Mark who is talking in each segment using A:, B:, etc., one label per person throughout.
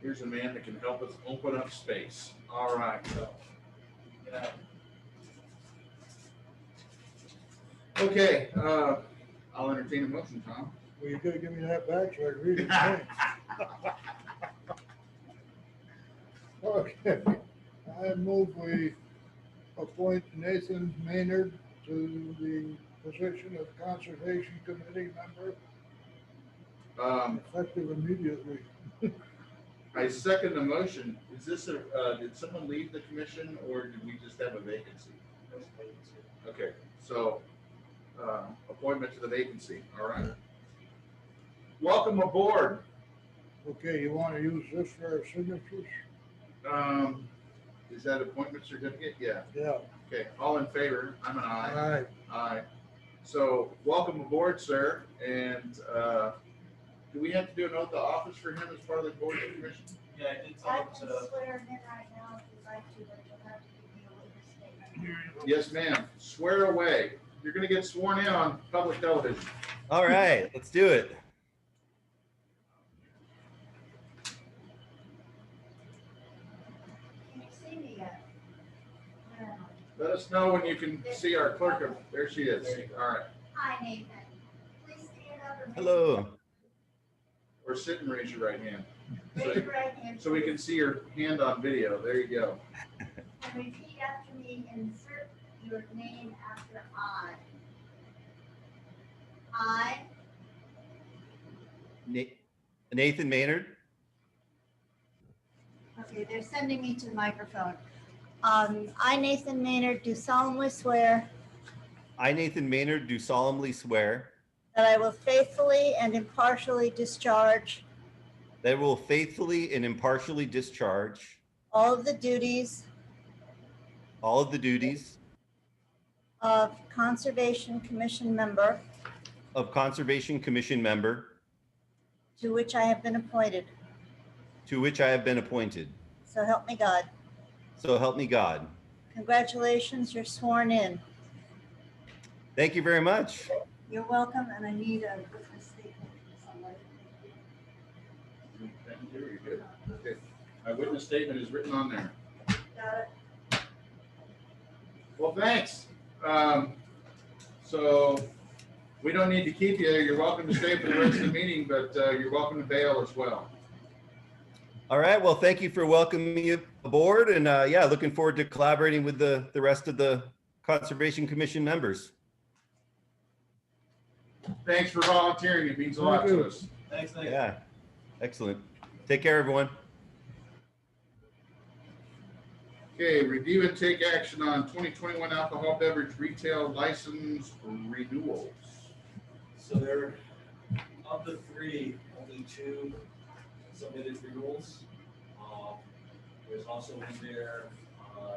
A: here's a man that can help us open up space. All right. Yeah. Okay, uh, I'll entertain a motion, Tom.
B: Well, you gotta give me that back so I can read it. again. Okay, I move we appoint Nathan Maynard to the position of Conservation Committee member,
A: Um,
B: effective immediately.
A: I second the motion. Is this a, uh, did someone leave the commission or did we just have a vacancy? Okay, so, uh, appointment to the vacancy, all right. Welcome aboard.
B: Okay, you wanna use this for our signatures?
A: Um, is that appointment certificate? Yeah,
B: Yeah.
A: okay, all in favor? I'm an aye.
B: Aye.
A: Aye. So, welcome aboard, sir, and, uh, do we have to do an oath of office for him as part of the board of commission?
C: Yeah, I did
D: I
C: tell him
D: can
C: to,
D: swear him in right now if you'd like to, but you'll have to give me a witness
A: Yes,
D: statement.
A: ma'am. Swear away. You're gonna get sworn in on public television.
E: All right, let's do it.
D: Can you see me yet? No.
A: Let us know when you can see our clerk. of- There she is. All right.
D: Hi, Nathan. Please stand up and.
E: Hello.
A: Or sit and raise your right hand.
D: Raise your right hand.
A: So we can see your hand on video. There you go.
D: And repeat after me, insert your name after I. I,
E: Na- Nathan Maynard.
D: okay, they're sending me to the microphone. Um, I, Nathan Maynard, do solemnly swear
E: I, Nathan Maynard, do solemnly swear
D: that I will faithfully and impartially discharge
E: that I will faithfully and impartially discharge
D: all of the duties
E: all of the duties
D: of Conservation Commission member
E: of Conservation Commission member
D: to which I have been appointed.
E: to which I have been appointed.
D: So help me God.
E: So help me God.
D: Congratulations, you're sworn in.
E: Thank you very much.
D: You're welcome, and I need a witness statement from somebody.
A: Thank you. You're good. Okay. My witness statement is written on there.
D: Got it?
A: Well, thanks. Um, so we don't need to keep you. You're welcome to stay for the rest of the meeting, but, uh, you're welcome to bail as well.
E: All right. Well, thank you for welcoming me aboard. And uh, yeah, looking forward to collaborating with the, the rest of the Conservation Commission members.
A: Thanks for volunteering. It means a lot to us.
C: thanks, Nick.
E: Yeah. Excellent. Take care, everyone.
A: Okay, review and take action on twenty twenty-one alcohol beverage retail license renewals.
C: So there, of the three, only two submitted renewals. Um, There's also in there, uh,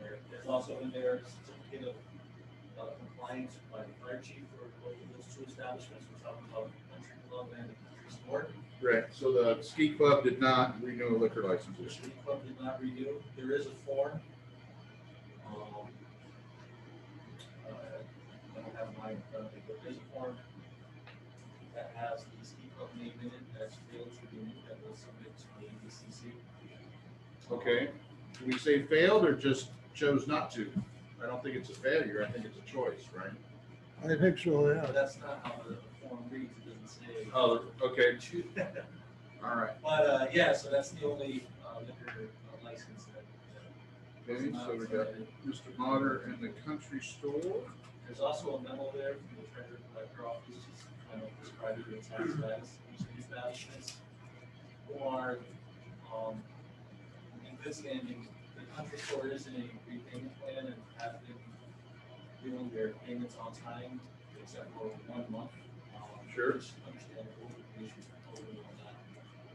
C: there- there's also in there certificate of uh, compliance by the fire chief for both of those two establishments, which I'm about country club and country sport.
A: Right, so the ski club did not renew liquor
C: Which
A: licenses.
C: the club did not renew, there is a form. Um, uh, I don't have mine in front of me, but there's a form that has the ski club name in it, that's failed to renew, that was submitted to the ABCC.
A: Okay, do we say failed or just chose not to? I don't think it's a failure, I think it's a choice, right?
B: I think so, yeah.
C: But that's not how the form reads, it doesn't say.
A: Oh, okay,
C: Choose-
A: all right.
C: But, uh, yeah, so that's the only uh, liquor uh, license that. that was
A: Okay,
C: not
A: so we got
C: submitted.
A: Mr. Motter and the country store.
C: There's also a memo there from the treasurer collector office, just kind of describing the tax status of each of these establishments. Who are, um, in good standing, the country store is in a repayment plan and have been doing their payments on time, except for one month. um,
A: Sure.
C: which is Understandable, the issues over and all that,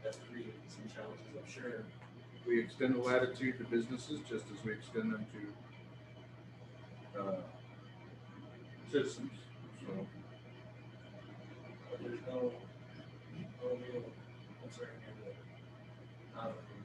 C: that's created some challenges, I'm sure.
A: We extend the latitude to businesses just as we extend them to uh, citizens, so.
C: But there's no, no real concern here that, um, not